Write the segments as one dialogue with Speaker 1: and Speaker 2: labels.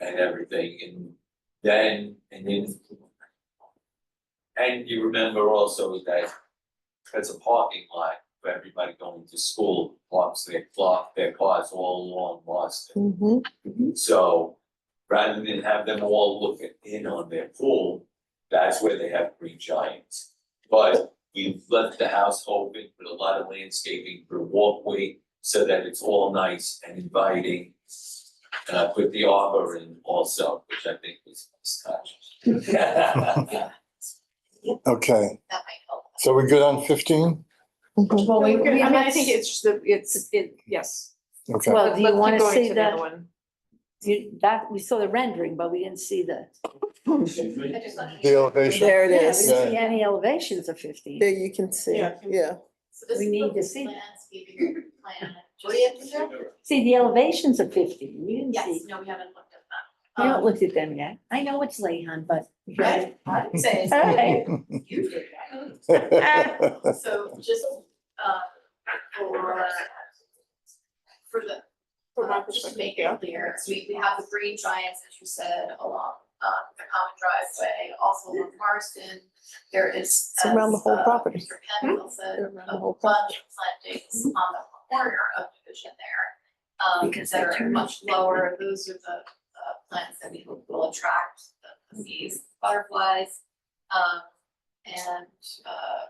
Speaker 1: and everything, and then, and then. And you remember also that there's a parking lot for everybody going to school, parks their clock, their cars all along Boston.
Speaker 2: Mhm.
Speaker 1: So rather than have them all looking in on their pool, that's where they have green giants. But we've left the house open with a lot of landscaping for walkway so that it's all nice and inviting. And I put the arbor in also, which I think was a nice touch.
Speaker 3: Okay,
Speaker 4: That might help.
Speaker 3: so we good on fifteen?
Speaker 2: Mhm.
Speaker 5: Mm-hmm.
Speaker 6: Well, we,
Speaker 4: So
Speaker 6: I
Speaker 4: we-
Speaker 6: mean, I
Speaker 4: let's-
Speaker 6: think it's just the, it's, it, yes.
Speaker 3: Okay,
Speaker 5: Well,
Speaker 6: Let's-
Speaker 5: do you
Speaker 6: let's keep
Speaker 5: wanna
Speaker 6: going
Speaker 5: say
Speaker 6: the
Speaker 5: that-
Speaker 6: other one.
Speaker 5: You, that, we saw the rendering, but we didn't see the,
Speaker 1: Excuse me?
Speaker 4: I just like-
Speaker 3: the elevation,
Speaker 2: There it
Speaker 5: yeah, we
Speaker 2: is.
Speaker 5: didn't see any elevations of fifteen.
Speaker 2: There you can see,
Speaker 6: Yeah.
Speaker 2: yeah.
Speaker 4: So this
Speaker 5: we
Speaker 4: is
Speaker 5: need
Speaker 4: the
Speaker 5: to see.
Speaker 4: Landscaping plan. What do you have to do?
Speaker 5: See, the elevations of fifteen, we didn't
Speaker 4: Yes,
Speaker 5: see.
Speaker 4: no, we haven't looked at that.
Speaker 5: We
Speaker 4: Um,
Speaker 5: haven't looked at them yet. I know it's Lehan, but.
Speaker 4: I, I would say
Speaker 5: All
Speaker 4: it's
Speaker 5: right.
Speaker 4: you did that. So just, uh, for, uh, for the,
Speaker 6: From my
Speaker 4: uh, just to
Speaker 6: perspective,
Speaker 4: make
Speaker 6: yeah.
Speaker 4: it clear, we, we have the green giants, as you said, along, um, the common driveway, also along Marston. There is,
Speaker 2: It's
Speaker 4: as,
Speaker 2: around the whole
Speaker 4: uh,
Speaker 2: property.
Speaker 4: Mr. Penfield said,
Speaker 2: Around the
Speaker 4: a
Speaker 2: whole
Speaker 4: bunch
Speaker 2: property.
Speaker 4: of plantings on the corner of Division there. Um,
Speaker 5: Because
Speaker 4: that
Speaker 5: they
Speaker 4: are
Speaker 5: turn
Speaker 4: much
Speaker 5: and-
Speaker 4: lower, those are the, uh, plants that we hope will attract the- the bees, butterflies. Um, and, uh,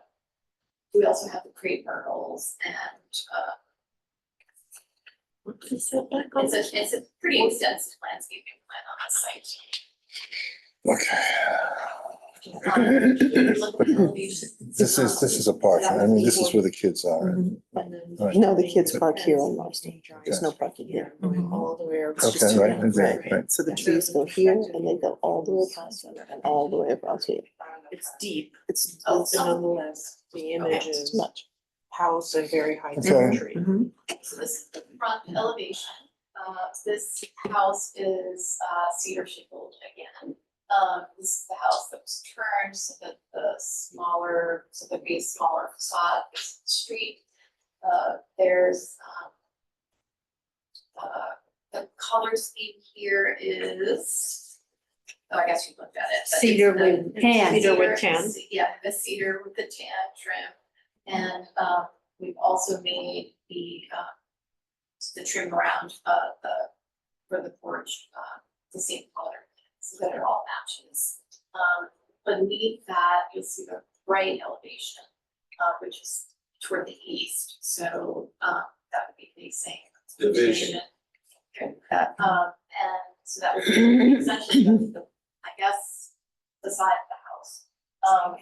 Speaker 4: we also have the crepe myrtles and, uh, it's a, it's a pretty extensive landscaping plan on the site.
Speaker 3: Okay,
Speaker 4: Um, if you look at the elevation,
Speaker 3: this is, this is a park, I mean, this is where the kids are.
Speaker 2: Mhm.
Speaker 4: and then-
Speaker 3: Right.
Speaker 2: No, the kids park here on Marston. There's
Speaker 3: Okay.
Speaker 2: no parking here.
Speaker 4: Mhm.
Speaker 2: It's just
Speaker 3: Okay,
Speaker 2: a
Speaker 3: right,
Speaker 2: round
Speaker 3: right,
Speaker 2: road.
Speaker 3: right.
Speaker 2: So the trees go here and they go all the way across and all the way across here.
Speaker 6: It's deep,
Speaker 2: It's,
Speaker 4: Oh,
Speaker 6: but nonetheless, the image
Speaker 2: it's
Speaker 6: is
Speaker 2: much. Mm-hmm.
Speaker 6: house and very high
Speaker 3: Okay.
Speaker 6: tree.
Speaker 4: So this is the front elevation. Uh, this house is, uh, cedar shingled again. Um, this is the house that was turned so that the smaller, so there'd be a smaller facade, this street. Uh, there's, um, uh, the color scheme here is, oh, I guess you looked at it. but it's
Speaker 5: Cedar
Speaker 4: the-
Speaker 5: with tan.
Speaker 6: Cedar with tan.
Speaker 4: Yeah, the cedar with the tan trim. And um we've also made the um the trim around uh the for the porch uh the same color, so that it all matches. Um beneath that, you'll see the right elevation, uh which is toward the east, so um that would be facing.
Speaker 1: Division.
Speaker 4: Okay, that, um and so that would be essentially the the, I guess, the side of the house. Um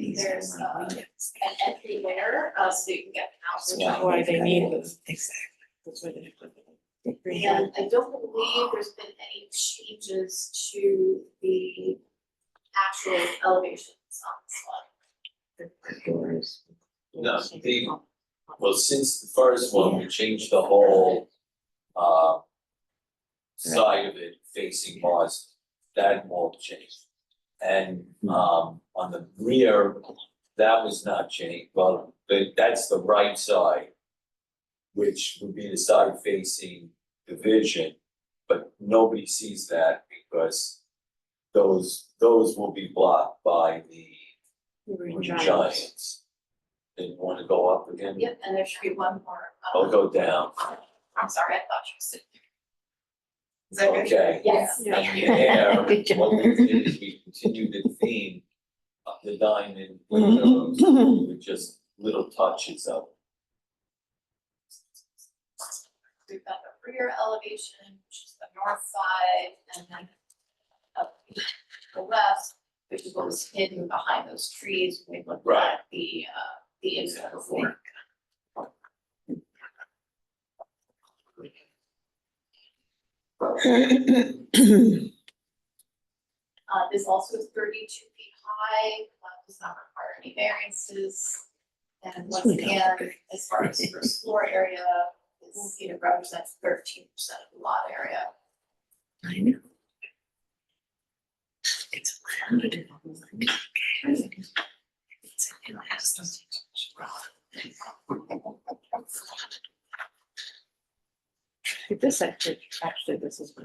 Speaker 4: there's uh an entry there, uh so you can get an house.
Speaker 6: Which is why they need this. Exactly. That's why they put the green tree.
Speaker 4: And I don't believe there's been any changes to the actual elevations on this one.
Speaker 1: No, the, well, since the first one, we changed the whole, uh, side of it facing Mars, that wall changed. And, um, on the rear, that was not changed, well, but that's the right side, which would be the side facing Division, but nobody sees that because those, those will be blocked by the green giants. And you wanna go up again?
Speaker 4: Yep, and there should be one more. um,
Speaker 1: I'll Oh, go down.
Speaker 4: I'm sorry, I thought you said. Is that good?
Speaker 1: Okay.
Speaker 4: Yes.
Speaker 1: And there,
Speaker 5: Good job.
Speaker 1: what we did is we continued the theme of the diamond windows with just little touches of.
Speaker 4: We've got the rear elevation, which is the north side, and then up to the west, which is what was hidden behind those trees when we looked
Speaker 1: Right.
Speaker 4: at the, uh, the inside before. Uh, this also is thirty-two feet high, uh, does not require any variances. And once again, as far as first floor area, it's, you know, represents thirteen percent of the lot area.
Speaker 5: I know. It's loud. This actually, actually, this is.